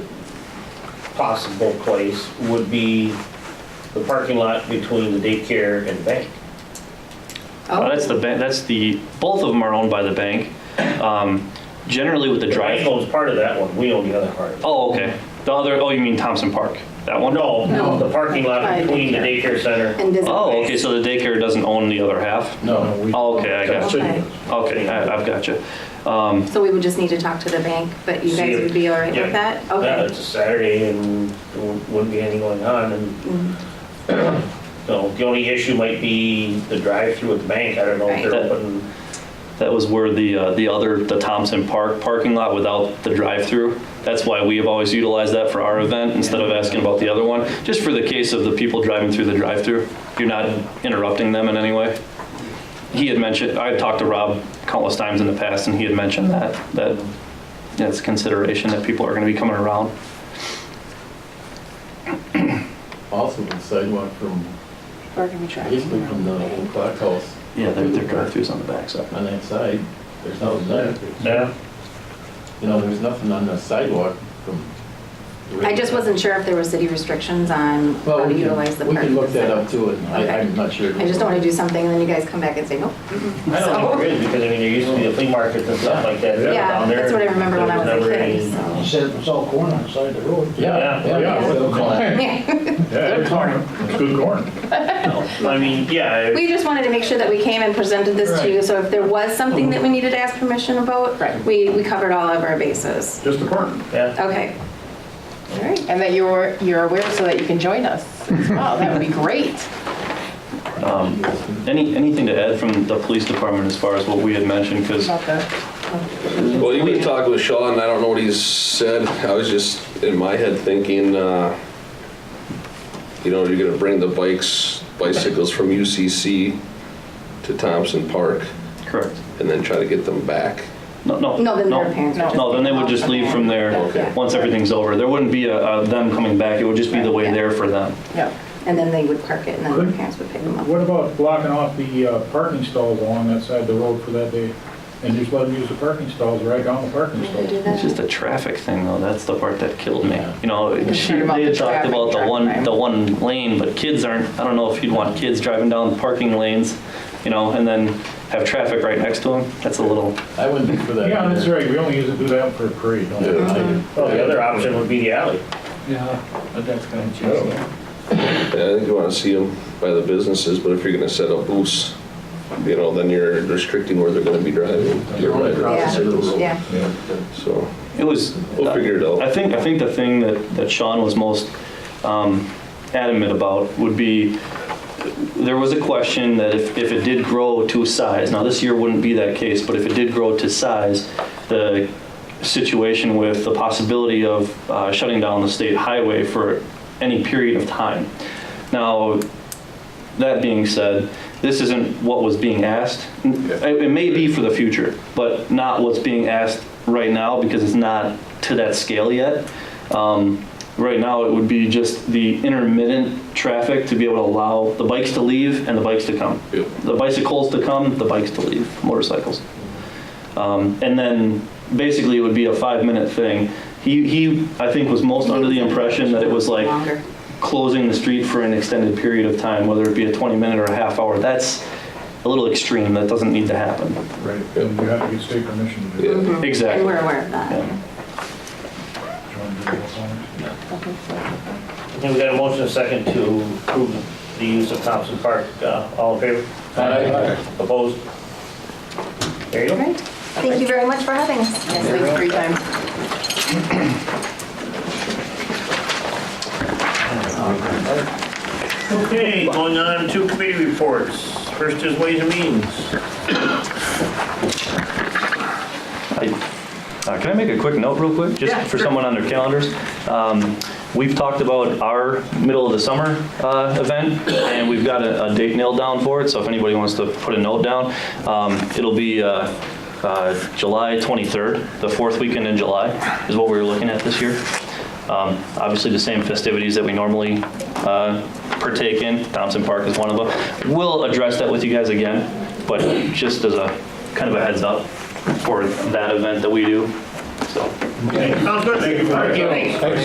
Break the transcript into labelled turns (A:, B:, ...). A: possible place would be the parking lot between the daycare and the bank.
B: Well,
C: Oh,
B: Uh, that's the bank. That's the both of them are owned by the bank. Um, generally, with the
A: The bank
B: drive.
A: owns part of that one, we own the other part.
B: Oh, okay. The other. Oh, you mean Thompson Park? That one?
A: No, the parking lot
C: By
A: between the daycare center.
C: and does
B: Oh, okay. So the daycare doesn't own the other half.
A: No. we-
B: Oh, okay. I got you.
C: Okay.
B: Okay, I, I've got you. Um,
C: So we would just need to talk to the bank, but you
A: See
C: guys
A: if-
C: would be all right
A: yeah.
C: with that?
A: Yeah,
C: Okay.
A: it's a Saturday and there wouldn't be anything going on and,
C: Mm-hmm.
A: so the only issue might be the drive-through at the bank. I don't know if they're
B: Right.
A: open.
B: that was where the uh, the other the Thompson Park parking lot without the drive-through. That's why we have always utilized that for our event instead of asking about the other one, just for the case of the people driving through the drive-through. You're not interrupting them in any way. He had mentioned I had talked to Rob countless times in the past, and he had mentioned that that that's a consideration that people are going to be coming around.
D: Also, the sidewalk from,
C: Bargaining track.
D: basically from the old clock house
B: Yeah, their, their drive-throughs on the backside.
D: on that side, there's nothing there.
A: Yeah.
D: You know, there's nothing on the sidewalk from. the-
C: I just wasn't sure if there were city restrictions on how
D: Well,
C: to
D: we
C: utilize the
D: can, we
C: park.
D: can look that up too, and I, I'm not sure.
C: I just don't want to do something and then you guys come back and say, nope.
A: I don't know where it is because I mean, there used to be the flea markets and stuff like that
C: Yeah,
A: down there.
C: that's what I remember when I
A: There
C: was a
A: never
C: kid,
A: any-
C: so.
E: He said it was all corn on the side of the road.
D: Yeah,
A: Yeah.
D: yeah, yeah.
E: Well, corn.
C: Yeah.
F: Yeah, it's corn. It's good corn.
A: No, I mean, yeah,
C: We just wanted to make sure that we came and presented this to you, so if there was something that we needed to ask permission about, we, we covered all of our bases.
F: Just the corn.
A: yeah.
C: Okay. All right.
G: And that you're, you're aware so that you can join us as well. That would be great.
D: Um,
B: Any anything to add from the police department as far as what we had mentioned? Because
G: About the-
H: Well, you were talking with Sean, I don't know what he's said. I was just in my head thinking, uh, you know, you're gonna bring the bikes, bicycles from UCC to Thompson Park
B: correct.
H: and then try to get them back.
B: No, no.
C: No, then their parents would just.
B: No, then they would just leave from
C: Okay.
B: there, once everything's over. There wouldn't be a, a them coming back, it would just be the way there for them.
G: Yeah.
C: And then they would park it and then their parents would pick them up.
F: What about blocking off the uh, parking stalls along that side of the road for that day? And just let them use the parking stalls right down the parking
C: Can we do
F: stalls.
C: that?
B: It's just a traffic thing, though, that's the part that killed me. You know, she,
G: Concerned about
B: they
G: the
B: had talked
G: traffic
B: about the
G: drive
B: one,
G: time.
B: the one lane, but kids aren't, I don't know if you'd want kids driving down parking lanes, you know, and then have traffic right next to them, that's a little,
D: I wouldn't be for that.
F: Yeah, that's
D: either.
F: right, we only use it, do that for a parade, don't we?
D: Yeah, I-
A: Well, the other option would be the alley.
E: Yeah, but that's kind of
F: I don't
E: cheesy.
F: know.
H: And I think you wanna see them by the businesses, but if you're gonna set up booths, you know, then you're restricting where they're gonna be driving. You're right.
C: Yeah, yeah.
H: So,
B: it was.
H: we'll figure it out.
B: I think, I think the thing that, that Sean was most um, adamant about would be, there was a question that if, if it did grow to size, now this year wouldn't be that case, but if it did grow to size, the situation with the possibility of uh, shutting down the state highway for any period of time. Now, that being said, this isn't what was being asked. It, it may be for the future, but not what's being asked right now because it's not to that scale yet. Um, right now, it would be just the intermittent traffic to be able to allow the bikes to leave and the bikes to come.
H: Yep.
B: The bicycles to come, the bikes to leave, motorcycles. Um, and then basically it would be a five minute thing. He, he, I think, was most under the impression that it was like
C: Longer.
B: closing the street for an extended period of time, whether it be a 20 minute or a half hour, that's a little extreme. That doesn't need to happen.
F: Mm-hmm. Right, and you have to get state permission to
H: Yeah.
F: do it.
C: And
B: Exactly.
C: we're aware of that.
B: Yeah.
F: Join the whole song.
A: And we got a motion and a second to approve the use of Thompson Park. Uh, All in favor?
D: Aye.
A: Opposed? There you
C: All
A: go.
C: right. Thank you very much for having us.
G: Yes, thanks for your time.
A: Okay, going on to committee reports. First is Ways and Means.
B: I- uh, Can I make a quick note real quick? Just for someone on their calendars. Um, We've talked about our middle of the summer uh, event and we've got a a date nailed down for it. So if anybody wants to put a note down, um, it'll be uh, uh, July 23rd, the fourth weekend in July is what we were looking at this year. Um, Obviously, the same festivities that we normally uh, partake in. Thompson Park is one of them. We'll address that with you guys again, but just as a kind of a heads up for that event that we do, so.
A: Okay, sounds good. Thank you.